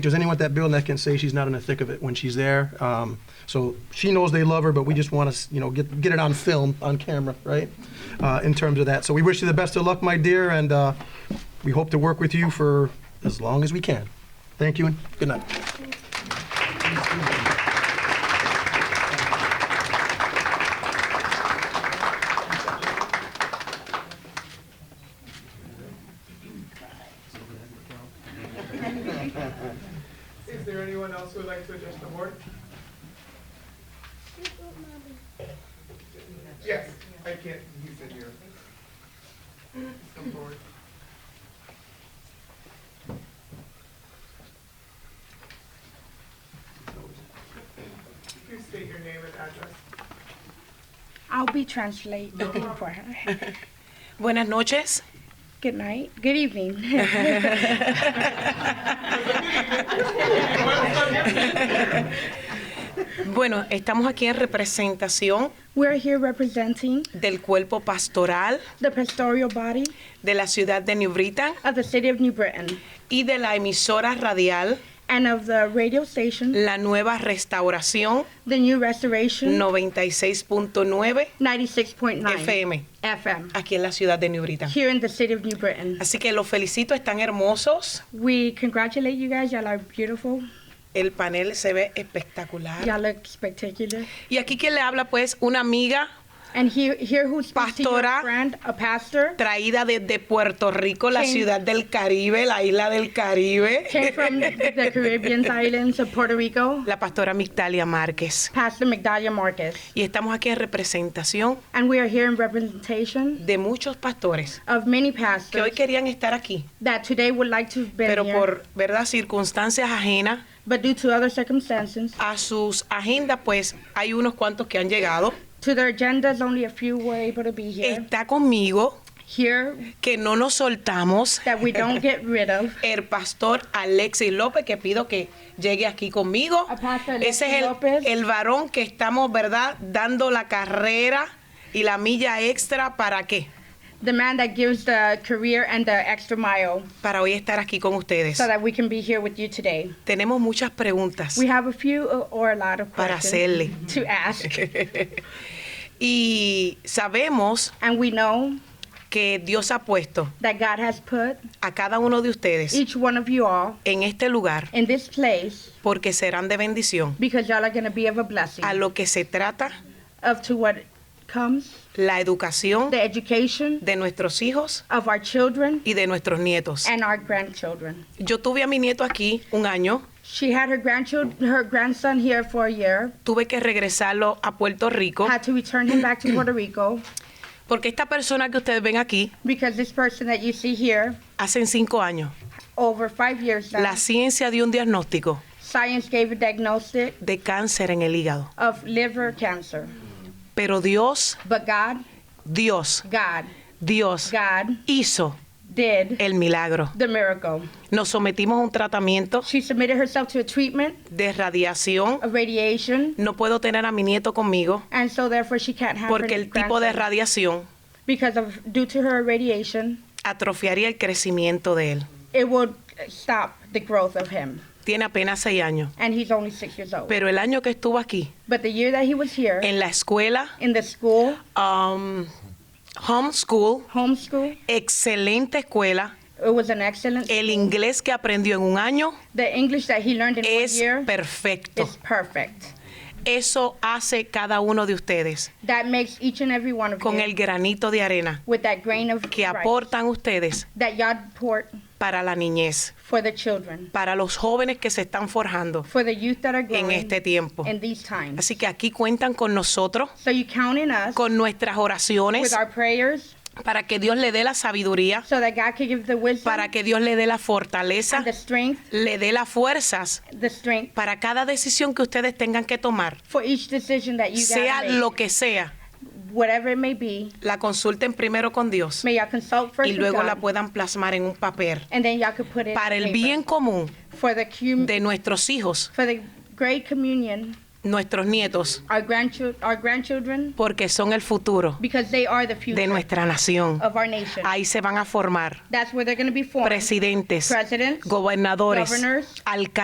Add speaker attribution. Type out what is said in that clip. Speaker 1: Because anyone at that building that can say she's not in the thick of it when she's there. Um, so she knows they love her, but we just want to, you know, get get it on film, on camera, right? Uh, in terms of that. So we wish you the best of luck, my dear, and uh, we hope to work with you for as long as we can. Thank you and good night.
Speaker 2: Is there anyone else who would like to address the board? Yes, I can't, he's in here. Come forward. Please state your name and address.
Speaker 3: I'll be translating for her.
Speaker 4: Buenas noches.
Speaker 3: Good night. Good evening.
Speaker 4: Bueno, estamos aquí en representación
Speaker 3: We're here representing
Speaker 4: del cuerpo pastoral
Speaker 3: the pastoral body
Speaker 4: de la ciudad de New Britain
Speaker 3: of the city of New Britain
Speaker 4: y de la emisora radial
Speaker 3: and of the radio station,
Speaker 4: La Nueva Restauración
Speaker 3: the new restoration
Speaker 4: 96.9
Speaker 3: 96.9
Speaker 4: FM
Speaker 3: FM
Speaker 4: aquí en la ciudad de New Britain.
Speaker 3: here in the city of New Britain.
Speaker 4: Así que los felicito, están hermosos.
Speaker 3: We congratulate you guys. Y'all are beautiful.
Speaker 4: El panel se ve espectacular.
Speaker 3: Y'all look spectacular.
Speaker 4: Y aquí quien le habla pues una amiga
Speaker 3: And here, here who's speaks to you,
Speaker 4: Pastora.
Speaker 3: a friend, a pastor,
Speaker 4: traída desde Puerto Rico, la
Speaker 3: Sí.
Speaker 4: ciudad del Caribe, la isla del Caribe.
Speaker 3: came from the Caribbean islands of Puerto Rico,
Speaker 4: la pastora Migdalia Márquez.
Speaker 3: Pastor Migdalia Marcus.
Speaker 4: Y estamos aquí en representación
Speaker 3: And we are here in representation
Speaker 4: de muchos pastores
Speaker 3: of many
Speaker 4: que hoy
Speaker 3: pastors
Speaker 4: querían estar aquí,
Speaker 3: that today would like to have been
Speaker 4: pero
Speaker 3: here,
Speaker 4: por verdad circunstancias ajenas
Speaker 3: but due to other circumstances,
Speaker 4: a sus agendas, pues hay unos cuantos que han llegado.
Speaker 3: to their agendas, only a few were able to be here.
Speaker 4: Está conmigo
Speaker 3: Here,
Speaker 4: que no nos soltamos
Speaker 3: that we don't get rid of.
Speaker 4: el pastor Alexis López, que pido que llegue aquí conmigo.
Speaker 3: A pastor
Speaker 4: Ese
Speaker 3: Alexis
Speaker 4: es
Speaker 3: López.
Speaker 4: el, el varón que estamos, ¿verdad?, dando la carrera y la milla extra para qué?
Speaker 3: The man that gives the career and the extra mile
Speaker 4: Para hoy estar aquí con ustedes.
Speaker 3: so that we can be here with you today.
Speaker 4: Tenemos muchas preguntas.
Speaker 3: We have a few o- or a lot of
Speaker 4: Para
Speaker 3: questions
Speaker 4: hacerle.
Speaker 3: to ask.
Speaker 4: y sabemos
Speaker 3: And we know
Speaker 4: que Dios ha puesto
Speaker 3: that God has put
Speaker 4: a cada uno de ustedes
Speaker 3: each one of you all
Speaker 4: en este lugar
Speaker 3: in this place
Speaker 4: porque serán de bendición
Speaker 3: because y'all are going to be of a blessing
Speaker 4: a lo que se trata
Speaker 3: of to what comes,
Speaker 4: la educación
Speaker 3: the education
Speaker 4: de nuestros hijos
Speaker 3: of our children
Speaker 4: y de nuestros nietos.
Speaker 3: and our grandchildren.
Speaker 4: Yo tuve a mi nieto aquí un año,
Speaker 3: She had her grandchildren, her grandson here for a year.
Speaker 4: tuve que regresarlo a Puerto Rico
Speaker 3: Had to return him back to Puerto Rico
Speaker 4: porque esta persona que ustedes ven aquí
Speaker 3: because this person that you see here,
Speaker 4: hace cinco años
Speaker 3: over five years now,
Speaker 4: la ciencia dio un diagnóstico
Speaker 3: science gave a diagnosis
Speaker 4: de cáncer en el hígado,
Speaker 3: of liver cancer.
Speaker 4: pero Dios,
Speaker 3: But God,
Speaker 4: Dios,
Speaker 3: God,
Speaker 4: Dios
Speaker 3: God
Speaker 4: hizo
Speaker 3: did
Speaker 4: el milagro.
Speaker 3: the miracle.
Speaker 4: Nos sometimos a un tratamiento
Speaker 3: She submitted herself to a treatment
Speaker 4: de radiación.
Speaker 3: of radiation,
Speaker 4: No puedo tener a mi nieto conmigo
Speaker 3: and so therefore she can't have
Speaker 4: porque
Speaker 3: her
Speaker 4: el tipo de
Speaker 3: grandson
Speaker 4: radiación
Speaker 3: because of due to her radiation,
Speaker 4: atrofiaría el crecimiento de él.
Speaker 3: it would stop the growth of him.
Speaker 4: Tiene apenas seis años.
Speaker 3: And he's only six years old.
Speaker 4: Pero el año que estuvo aquí,
Speaker 3: But the year that he was here
Speaker 4: en la escuela,
Speaker 3: in the school,
Speaker 4: um, homeschool,
Speaker 3: homeschool,
Speaker 4: excelente escuela,
Speaker 3: it was an excellent.
Speaker 4: el inglés que aprendió en un año
Speaker 3: the English that he learned in one
Speaker 4: es
Speaker 3: year
Speaker 4: perfecto.
Speaker 3: is perfect.
Speaker 4: Eso hace cada uno de ustedes
Speaker 3: That makes each and every one of
Speaker 4: con
Speaker 3: you
Speaker 4: el granito de arena
Speaker 3: with that grain of
Speaker 4: que
Speaker 3: rice
Speaker 4: aportan ustedes
Speaker 3: that y'all pour
Speaker 4: para la niñez,
Speaker 3: for the children,
Speaker 4: para los jóvenes que se están forjando
Speaker 3: for the youth that are growing
Speaker 4: en este tiempo.
Speaker 3: in these times.
Speaker 4: Así que aquí cuentan con nosotros,
Speaker 3: So you count in us
Speaker 4: con nuestras
Speaker 3: with
Speaker 4: oraciones,
Speaker 3: our prayers
Speaker 4: para que Dios le dé la sabiduría,
Speaker 3: so that God can give the wisdom,
Speaker 4: para que Dios le dé la fortaleza,
Speaker 3: and the strength,
Speaker 4: le dé las fuerzas
Speaker 3: the strength
Speaker 4: para cada decisión que ustedes tengan que tomar,
Speaker 3: for each decision that you
Speaker 4: sea
Speaker 3: guys make,
Speaker 4: lo que sea,
Speaker 3: whatever it may be.
Speaker 4: la consulten primero con Dios
Speaker 3: May y'all consult first
Speaker 4: y
Speaker 3: with
Speaker 4: luego
Speaker 3: God,
Speaker 4: la puedan plasmar en un papel
Speaker 3: and then y'all could put it
Speaker 4: para
Speaker 3: in
Speaker 4: el
Speaker 3: paper.
Speaker 4: bien común
Speaker 3: for the cum-
Speaker 4: de nuestros hijos,
Speaker 3: for the great communion,
Speaker 4: nuestros nietos,
Speaker 3: our grandchildren, our grandchildren,
Speaker 4: porque son el futuro
Speaker 3: because they are the future
Speaker 4: de nuestra nación.
Speaker 3: of our nation.
Speaker 4: Ahí se van a formar
Speaker 3: That's where they're going to be formed.
Speaker 4: presidentes,
Speaker 3: Presidents,
Speaker 4: gobernadores,
Speaker 3: governors,
Speaker 4: alcaldes.